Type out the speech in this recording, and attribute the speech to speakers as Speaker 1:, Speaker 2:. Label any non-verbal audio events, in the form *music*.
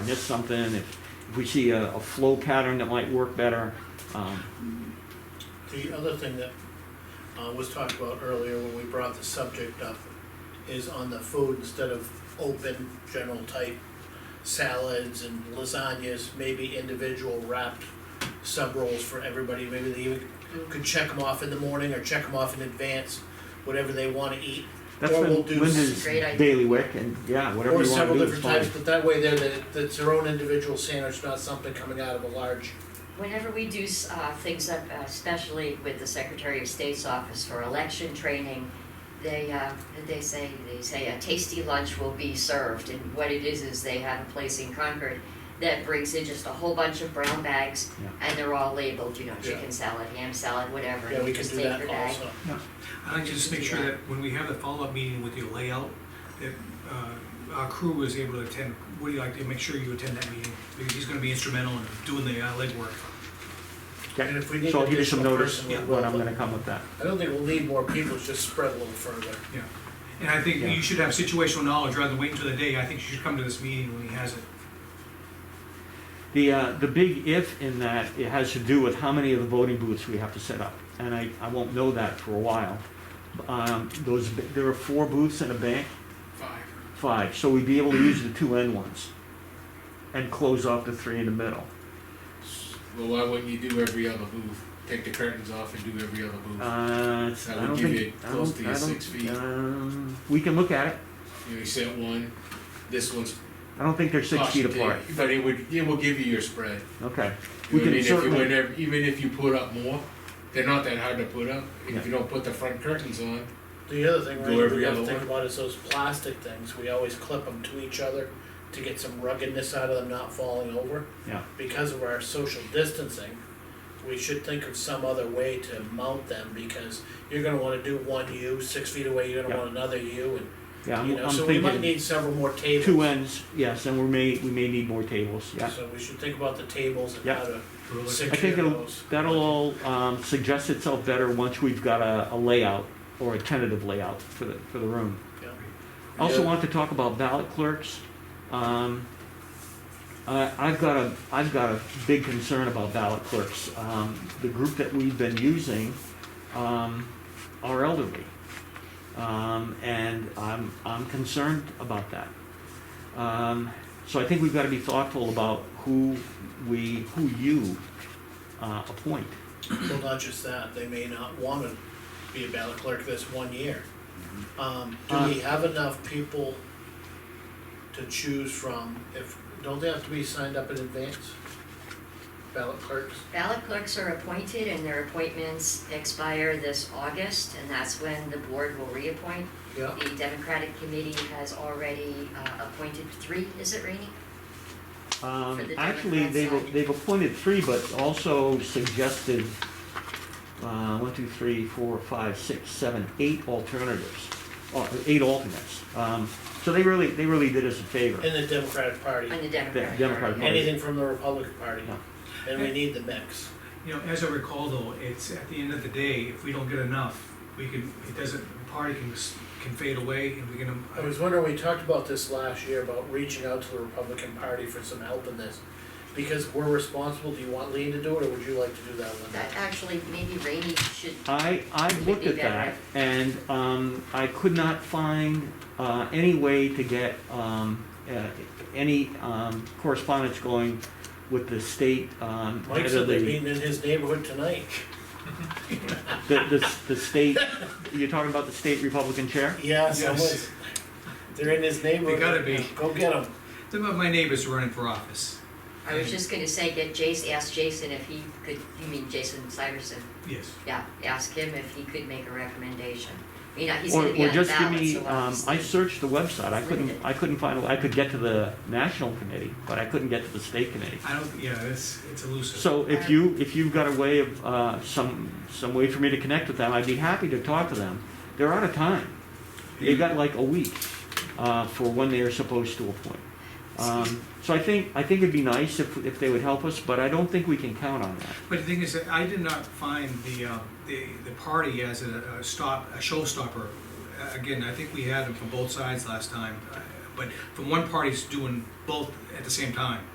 Speaker 1: missed something, if if we see a, a flow pattern that might work better. Um,
Speaker 2: The other thing that uh, was talked about earlier when we brought the subject up is on the food, instead of open, general type salads and lasagnas, maybe individual wrapped sub rolls for everybody, maybe they even could check them off in the morning or check them off in advance, whatever they wanna eat.
Speaker 1: That's
Speaker 2: Or we'll
Speaker 1: been
Speaker 2: do
Speaker 1: Linda's
Speaker 2: s-
Speaker 3: Great idea.
Speaker 1: daily wick, and yeah, whatever
Speaker 2: Or
Speaker 1: you wanna
Speaker 2: several
Speaker 1: do is
Speaker 2: different
Speaker 1: fine.
Speaker 2: types, but that way they're, the- that's their own individual sandwich, not something coming out of a large.
Speaker 3: Whenever we do uh, things, up, uh, especially with the Secretary of State's office for election training, they, uh, they say, they say a tasty lunch will be served, and what it is, is they have a place in Concord that brings in just a whole bunch of brown bags,
Speaker 1: Yeah.
Speaker 3: and they're all labeled, you know,
Speaker 2: Yeah.
Speaker 3: chicken salad, ham salad, whatever,
Speaker 2: Yeah,
Speaker 3: and
Speaker 2: we
Speaker 3: you
Speaker 2: can
Speaker 3: just
Speaker 2: do
Speaker 3: take
Speaker 2: that
Speaker 3: your bag.
Speaker 2: also.
Speaker 4: I'd like to just make sure that when we have the follow-up meeting with your layout, that uh, our crew was able to attend, would you like to make sure you attend that meeting? Because he's gonna be instrumental in doing the uh, legwork.
Speaker 1: Okay.
Speaker 2: And if we need
Speaker 1: So I'll give you some
Speaker 2: additional
Speaker 1: notice
Speaker 2: person, we'll-
Speaker 1: when I'm gonna come with that.
Speaker 2: I don't think we'll need more people, it's just spread a little further.
Speaker 4: Yeah. And I think
Speaker 1: Yeah.
Speaker 4: you should have situational knowledge rather than wait until the day. I think you should come to this meeting when he has it.
Speaker 1: The, uh, the big if in that, it has to do with how many of the voting booths we have to set up. And I, I won't know that for a while. Um, those, b- there are four booths in a bank,
Speaker 4: Five.
Speaker 1: five, so we'd be able to use the two end ones and close off the three in the middle.
Speaker 5: Well, why wouldn't you do every other booth? Take the curtains off and do every other booth.
Speaker 1: Uh, it's-
Speaker 5: That
Speaker 1: I
Speaker 5: would
Speaker 1: don't
Speaker 5: give
Speaker 1: think-
Speaker 5: you
Speaker 1: I
Speaker 5: close
Speaker 1: don't-
Speaker 5: to your
Speaker 1: I don't-
Speaker 5: six feet.
Speaker 1: Um, we can look at it.
Speaker 5: You know, you set one, this one's.
Speaker 1: I don't think they're six feet apart.
Speaker 5: But it would, it will give you your spread.
Speaker 1: Okay.
Speaker 5: You
Speaker 1: We
Speaker 5: know
Speaker 1: can
Speaker 5: what I mean? If you
Speaker 1: certainly-
Speaker 5: would never, even if you put up more, they're not that hard to put up.
Speaker 1: Yeah.
Speaker 5: If you don't put the front curtains on,
Speaker 2: The other thing
Speaker 5: Go
Speaker 2: we're
Speaker 5: every
Speaker 2: gonna have to
Speaker 5: other
Speaker 2: think
Speaker 5: one.
Speaker 2: about is those plastic things, we always clip them to each other to get some ruggedness out of them not falling over.
Speaker 1: Yeah.
Speaker 2: Because of our social distancing, we should think of some other way to mount them, because you're gonna wanna do one U, six feet away, you're gonna
Speaker 1: Yeah.
Speaker 2: want another U,
Speaker 1: Yeah,
Speaker 2: and,
Speaker 1: I'm,
Speaker 2: you know,
Speaker 1: I'm
Speaker 2: so we might
Speaker 1: thinking
Speaker 2: need several more tables.
Speaker 1: two ends, yes, and we may, we may need more tables, yeah.
Speaker 2: So we should think about the tables and
Speaker 1: Yeah.
Speaker 2: how to
Speaker 1: I
Speaker 2: secure
Speaker 1: think it'll,
Speaker 2: those.
Speaker 1: that'll all, um, suggest itself better once we've got a, a layout or a tentative layout for the, for the room.
Speaker 2: Yeah.
Speaker 1: I Also
Speaker 5: Yeah.
Speaker 1: want to talk about ballot clerks. Um, I, I've got a, I've got a big concern about ballot clerks. Um, the group that we've been using, um, are elderly. Um, and I'm, I'm concerned about that. Um, so I think we've got to be thoughtful about who we, who you, uh, appoint.
Speaker 2: Well, not just that, they may not wanna be a ballot clerk this one year. Um, do we have enough people to choose from, if, don't they have to be signed up in advance? Ballot clerks,
Speaker 3: Ballot clerks are appointed and their appointments expire this August, and that's when the board will reappoint.
Speaker 2: yeah,
Speaker 3: The Democratic Committee has already uh, appointed three, is it Rainey?
Speaker 1: Um,
Speaker 3: For the
Speaker 1: actually,
Speaker 3: Democrat
Speaker 1: they've,
Speaker 3: side.
Speaker 1: they've appointed three, but also suggested, uh, one, two, three, four, five, six, seven, eight alternatives, or eight alternates. Um, so they really, they really did us a favor.
Speaker 2: in the Democratic Party,
Speaker 3: On the Democratic.
Speaker 1: Democratic
Speaker 3: Party.
Speaker 2: anything from the Republican Party,
Speaker 1: Yeah.
Speaker 2: and we need the mix.
Speaker 4: You know, as I recall though, it's at the end of the day, if we don't get enough, we can, it doesn't, the party can, s- can fade away and we can. um,
Speaker 2: I was wondering, we talked about this last year, about reaching out to the Republican Party for some help in this, because we're responsible, do you want Lean to do it, or would you like to do that one?
Speaker 3: That actually, maybe Rainey should,
Speaker 1: I, I
Speaker 3: Would
Speaker 1: looked
Speaker 3: be
Speaker 1: at that,
Speaker 3: better.
Speaker 1: and, um, I could not find, uh, any way to get, um, uh, any, um, correspondence going with the state, um,
Speaker 2: Mike
Speaker 1: head
Speaker 2: said
Speaker 1: of
Speaker 2: they're
Speaker 1: the-
Speaker 2: meeting in his neighborhood tonight,
Speaker 1: The, the, the state, you're talking about the state Republican chair?
Speaker 2: yeah,
Speaker 4: *laughs* Yes.
Speaker 2: someone, they're in his neighborhood.
Speaker 4: gotta be.
Speaker 2: Go get them.
Speaker 4: Some of my neighbors are running for office.
Speaker 3: I was just gonna say, get Jason, ask Jason if he could, you mean Jason Cyverson?
Speaker 4: Yes.
Speaker 3: Yeah, ask him if he could make a recommendation. I mean, he's
Speaker 1: Or,
Speaker 3: gonna
Speaker 1: or
Speaker 3: be on the
Speaker 1: just give
Speaker 3: ballot,
Speaker 1: me,
Speaker 3: so
Speaker 1: um, I
Speaker 3: obviously.
Speaker 1: searched the website, I couldn't,
Speaker 3: Limited.
Speaker 1: I couldn't find, I could get to the national committee, but I couldn't get to the state committee.
Speaker 4: I don't, yeah, it's, it's elusive.
Speaker 1: So if you,
Speaker 3: Um,
Speaker 1: if you've got a way of, uh, some, some way for me to connect with them, I'd be happy to talk to them. They're out of time. They've got like a week, uh, for when they are supposed to appoint. Um, so I think, I think it'd be nice if, if they would help us, but I don't think we can count on that.
Speaker 4: But the thing is, that I did not find the, uh, the, the party as a, a stop, a showstopper. Uh, Again, I think we had them from both sides last time, uh, but from one party's doing both at the same time.